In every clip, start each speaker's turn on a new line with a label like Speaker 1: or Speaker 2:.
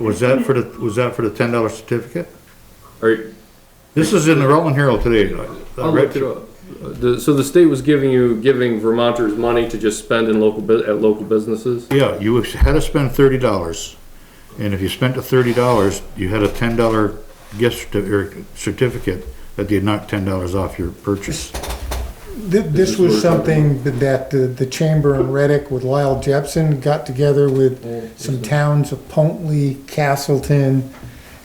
Speaker 1: Was that for the, was that for the ten dollar certificate?
Speaker 2: Or,
Speaker 1: This is in the Rutland Herald today. I- I
Speaker 2: I'll
Speaker 1: read
Speaker 2: Oh, look it up. Uh, The, so the state was giving you, giving Vermonters money to just spend in local, bu- at local businesses?
Speaker 1: Yeah, you had to spend thirty dollars, and if you spent the thirty dollars, you had a ten dollar gift certi- or certificate that they knocked ten dollars off your purchase.
Speaker 3: Th- This was something that the, the chamber in Reddick with Lyle Jepson got together with some towns of Pontley, Castleton,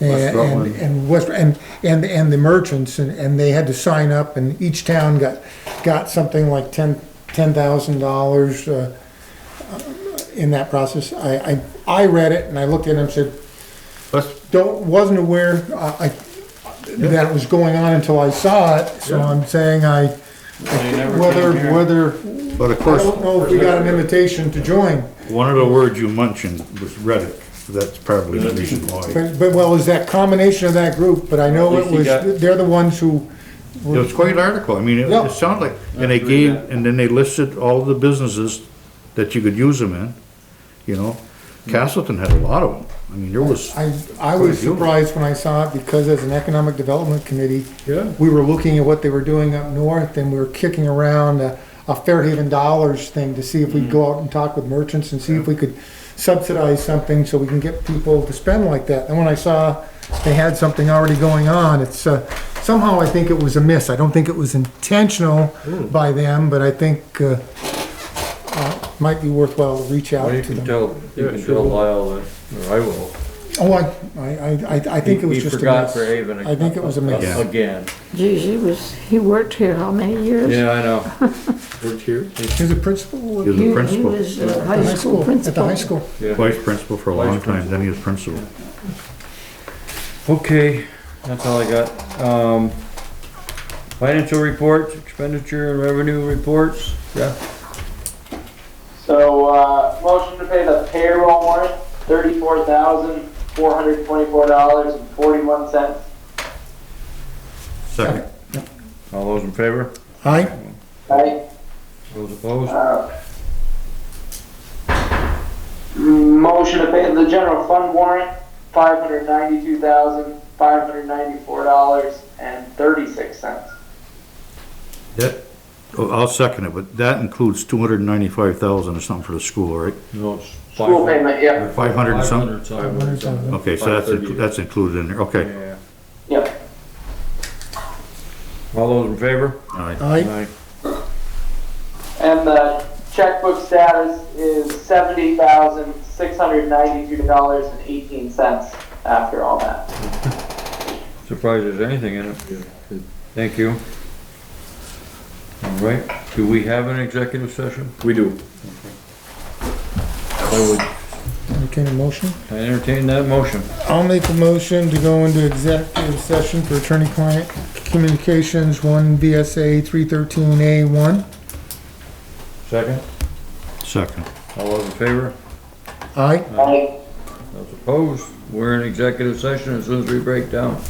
Speaker 1: West
Speaker 3: and,
Speaker 1: Rutland.
Speaker 3: and- and West, and, and, and the merchants, and, and they had to sign up, and each town got, got something like ten, ten thousand dollars, uh, in that process. I, I, I read it and I looked at it and said,
Speaker 1: That's,
Speaker 3: don't, wasn't aware, uh, I, I- that it was going on until I saw it, so I'm saying I, whether, whether,
Speaker 1: but of
Speaker 3: I
Speaker 1: course,
Speaker 3: don't know if we got an invitation to join,
Speaker 1: one of the words you mentioned was Reddick. That's probably the reason why.
Speaker 3: but, but well, is that combination of that group, but I know it was, they're the ones who,
Speaker 1: It was quite an article. I mean, it
Speaker 3: Yeah.
Speaker 1: it sounded like, and they gave, and then they listed all the businesses that you could use them in, you know? Castleton had a lot of them. I mean, there was,
Speaker 3: Hmm. I, I was surprised when I saw it, because as an economic development committee,
Speaker 1: Yeah.
Speaker 3: we were looking at what they were doing up north, and we were kicking around a, a Fairhaven Dollars thing to see if we'd
Speaker 4: Mm.
Speaker 3: go out and talk with merchants and see if we could subsidize something so we can get people to spend like that. And when I saw they had something already going on, it's, uh, somehow I think it was a miss. I don't think it was intentional
Speaker 4: Hmm.
Speaker 3: by them, but I think, uh, uh, might be worthwhile to reach out
Speaker 4: Well, you
Speaker 3: to
Speaker 4: can
Speaker 3: them.
Speaker 4: tell, you
Speaker 2: Yeah,
Speaker 4: can
Speaker 2: sure.
Speaker 4: tell Lyle that, or I will.
Speaker 3: Oh, I, I, I, I think it was just a miss.
Speaker 4: He forgot Fairhaven.
Speaker 3: I think it was a miss.
Speaker 1: Yeah.
Speaker 4: Again.
Speaker 5: Geez, he was, he worked here how many years?
Speaker 4: Yeah, I know,
Speaker 2: Worked here?
Speaker 3: He's a
Speaker 1: he
Speaker 3: principal at
Speaker 1: was
Speaker 5: He-
Speaker 1: a
Speaker 5: He
Speaker 1: principal,
Speaker 5: was a
Speaker 3: the
Speaker 5: high
Speaker 3: high
Speaker 5: school
Speaker 3: school, at the
Speaker 5: principal.
Speaker 3: high school.
Speaker 4: yeah.
Speaker 1: vice principal for a long time, then he was principal.
Speaker 4: Okay, that's all I got. Um, financial reports, expenditure and revenue reports. Yeah.
Speaker 6: So, uh, motion to pay the payroll warrant, thirty-four thousand, four hundred twenty-four dollars and forty-one cents.
Speaker 1: Second.
Speaker 4: All those in favor?
Speaker 3: Aye,
Speaker 6: Right,
Speaker 4: Those opposed?
Speaker 6: uh. Motion to pay the general fund warrant, five hundred ninety-two thousand, five hundred ninety-four dollars and thirty-six cents.
Speaker 1: That, oh, I'll second it, but that includes two hundred and ninety-five thousand or something for the school, right?
Speaker 4: No, it's five.
Speaker 6: School payment, yeah,
Speaker 1: Five hundred and something?
Speaker 4: Five hundred something.
Speaker 1: Okay, so that's, inclu-
Speaker 4: 530.
Speaker 1: that's included in there, okay.
Speaker 4: Yeah.
Speaker 6: yeah.
Speaker 4: All those in favor?
Speaker 1: All right.
Speaker 3: aye,
Speaker 6: And the checkbook status is seventy thousand, six hundred ninety-two dollars and eighteen cents after all that.
Speaker 4: Surprised there's anything in it. Thank you. All right, do we have an executive session?
Speaker 2: We do.
Speaker 4: I would
Speaker 3: entertain a motion.
Speaker 4: I entertain that motion.
Speaker 3: I'll make a motion to go into executive session for attorney-client communications, one BSA three thirteen A one.
Speaker 4: Second.
Speaker 1: Second.
Speaker 4: All those in favor?
Speaker 3: Aye,
Speaker 6: Right?
Speaker 4: Those opposed? We're in executive session as soon as we break down.